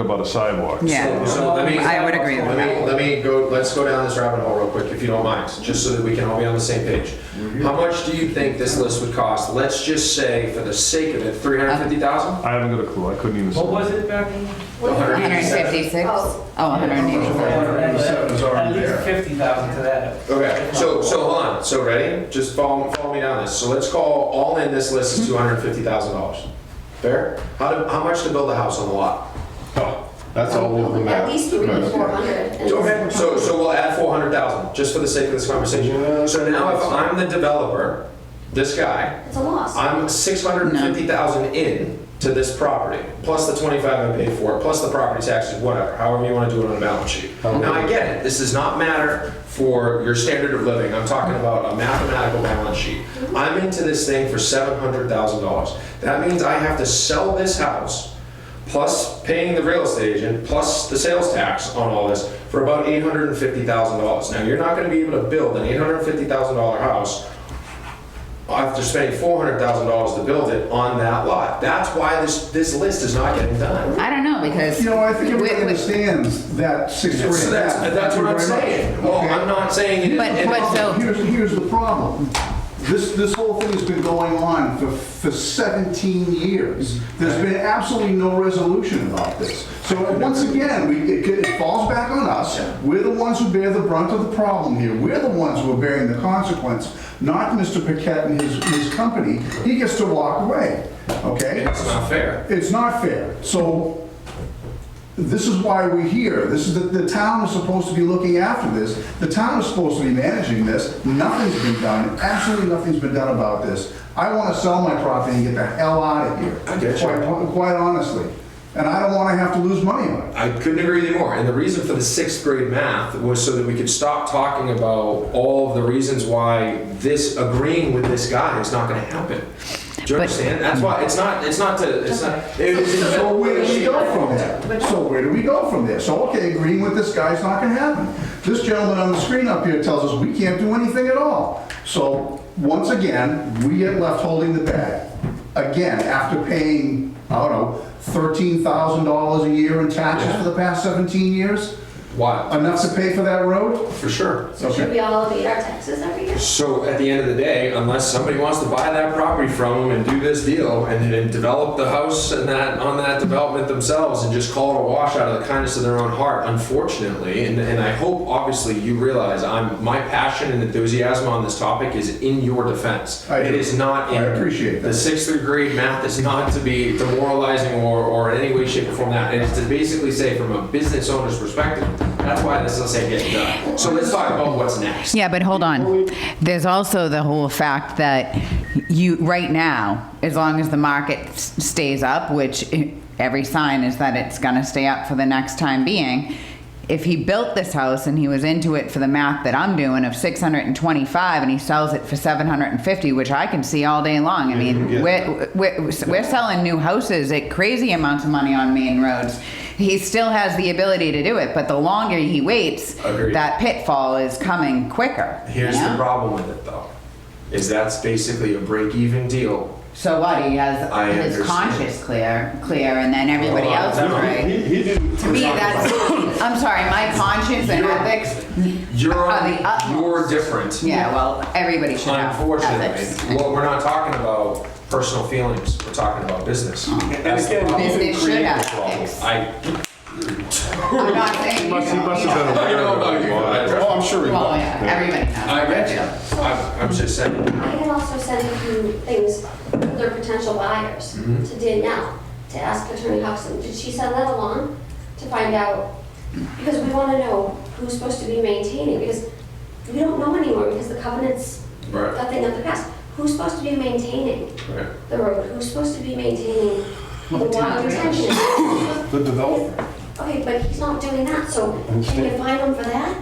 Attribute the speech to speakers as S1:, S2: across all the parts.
S1: about a sidewalk.
S2: Yeah,
S3: So let me-
S2: Um, I would agree with
S3: Let
S2: that.
S3: me, let me go, let's go down this rabbit hole real quick, if you don't mind, just so that we can all be on the same page. How much do you think this list would cost? Let's just say, for the sake of it, three hundred fifty thousand?
S1: I haven't got a clue, I couldn't even.
S4: What was it back?
S3: One
S2: 156? Oh, 180.
S4: At least fifty thousand to that.
S3: Okay, so, so hold on, so ready? Just follow, follow me down this. So let's call, all in this list is two hundred fifty thousand dollars. Fair? How do, how much to build a house on the lot?
S5: That's all over the map.
S6: At least three to four hundred.
S3: Okay, so, so we'll add four hundred thousand, just for the sake of this conversation. So now if I'm the developer, this guy,
S6: It's a loss.
S3: I'm six hundred and fifty thousand in to this property, plus the twenty-five I paid for it, plus the property taxes, whatever, however you wanna do it on a balance sheet. Now, I get it, this does not matter for your standard of living, I'm talking about a mathematical balance sheet. I'm into this thing for seven hundred thousand dollars. That means I have to sell this house, plus paying the real estate agent, plus the sales tax on all this, for about eight hundred and fifty thousand dollars. Now, you're not gonna be able to build an eight hundred and fifty thousand dollar house after spending four hundred thousand dollars to build it on that lot. That's why this, this list is not getting done.
S2: I don't know, because.
S5: You know, I think everybody
S2: with- with-
S5: understands that
S3: So
S5: six-story
S3: that's,
S5: map.
S3: that's what I'm
S5: Thank you very
S3: saying.
S5: much.
S3: Well,
S5: Okay.
S3: I'm not saying it.
S2: But-
S3: it-
S2: but so-
S5: Here's, here's the problem. This, this whole thing's been going on for, for 17 years. There's been absolutely no resolution about this. So once again, we, it it falls back on us. We're the ones who bear the brunt of the problem here. We're the ones who are bearing the consequence, not Mr. Paquette and his, his company. He gets to walk away, okay?
S3: It's not fair.
S5: It's not fair. So this is why we're here. This is, the, the town is supposed to be looking after this. The town is supposed to be managing this. Nothing's been done. Absolutely nothing's been done about this. I want to sell my property and get the hell out of here.
S3: I get you.
S5: Quite, quite honestly. And I don't want to have to lose money on it.
S3: I couldn't agree with you more. And the reason for the sixth grade math was so that we could stop talking about all of the reasons why this, agreeing with this guy is not gonna happen. Do you
S2: But-
S3: understand? That's why, it's not, it's not to, it's not. it's- it's-
S5: So where do we go from there? So where do we go from there? So, okay, agreeing with this guy's not gonna happen. This gentleman on the screen up here tells us we can't do anything at all. So, once again, we get left holding the bag. Again, after paying, I don't know, thirteen thousand dollars a year in taxes for the past seventeen years,
S3: Why?
S5: enough to pay for that road?
S3: For sure.
S6: So should we all elevate our taxes every year?
S3: So at the end of the day, unless somebody wants to buy that property from them and do this deal and then develop the house and that, on that development themselves and just call it a wash out of the kindness of their own heart, unfortunately, and, and I hope obviously you realize I'm, my passion and enthusiasm on this topic is in your defense.
S5: I do.
S3: It is not in.
S5: I appreciate that.
S3: The sixth grade math is not to be demoralizing or, or in any way, shape or form that. It is to basically say from a business owner's perspective, that's why this is getting done. So let's talk about what's next.
S2: Yeah, but hold on. There's also the whole fact that you, right now, as long as the market s- stays up, which i- every sign is that it's gonna stay up for the next time being, if he built this house and he was into it for the math that I'm doing of 625 and he sells it for 750, which I can see all day long. I mean, we're, we're, we're selling new houses at crazy amounts of money on main roads. He still has the ability to do it, but the longer he waits,
S3: Agreed.
S2: that pitfall is coming quicker. you
S3: Here's
S2: know?
S3: the problem with it though, is that's basically a break-even deal.
S2: So what? He has
S3: I
S2: his
S3: understand.
S2: conscience clear, clear, and then everybody
S3: Hold on,
S2: else is
S3: no,
S2: right.
S5: He, he didn't.
S2: To me, that's. I'm sorry, my conscience and
S3: You're-
S2: ethics.
S3: You're
S2: Are the utmost.
S3: you're different.
S2: Yeah, well, everybody should have
S3: Unfortunately,
S2: ethics.
S3: well, we're not talking about personal feelings. We're talking about business. That's the problem.
S2: Uh-huh. Business should have ethics.
S3: I,
S2: I'm not saying you
S1: Must, he
S2: don't,
S1: must
S2: you
S1: have been
S2: know.
S3: I
S1: aware
S3: don't
S1: of
S3: know
S1: it.
S3: about you.
S5: Oh, I'm sure he
S2: Well, yeah, everybody knows.
S3: I read you. I'm, I'm just saying.
S6: I had also sent a few things for their potential buyers to Danielle, to ask Attorney Huxton, did she send that along to find out? Because we want to know who's supposed to be maintaining, because we don't know anymore, because the covenants,
S3: Right.
S6: that thing of the past. Who's supposed to be maintaining
S3: Right.
S6: the road? Who's supposed to be maintaining the
S2: Well,
S6: water
S2: it's not
S6: retention?
S5: The developer.
S6: Okay, but he's not doing that, so can you find him for that?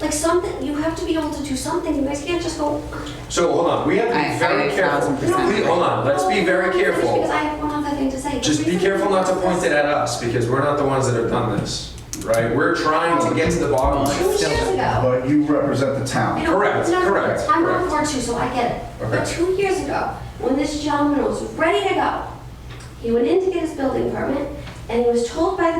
S6: Like something, you have to be able to do something, you guys can't just go,
S3: So hold on. We have to
S2: I- I
S3: be very careful.
S2: 1000%
S3: We- Hold on. Let's be very careful.
S6: Because I have one other thing to say.
S3: Just be careful not to point it at us because we're not the ones that have done this, right? We're trying to get to the bottom
S6: Two
S3: line.
S6: years ago.
S5: But you represent the
S6: you
S5: town.
S6: know,
S3: Correct,
S6: no,
S3: correct,
S6: I'm
S3: correct.
S6: on board too, so I get it. But
S3: Okay.
S6: two years ago, when this gentleman was ready to go, he went in to get his building permit and he was told by the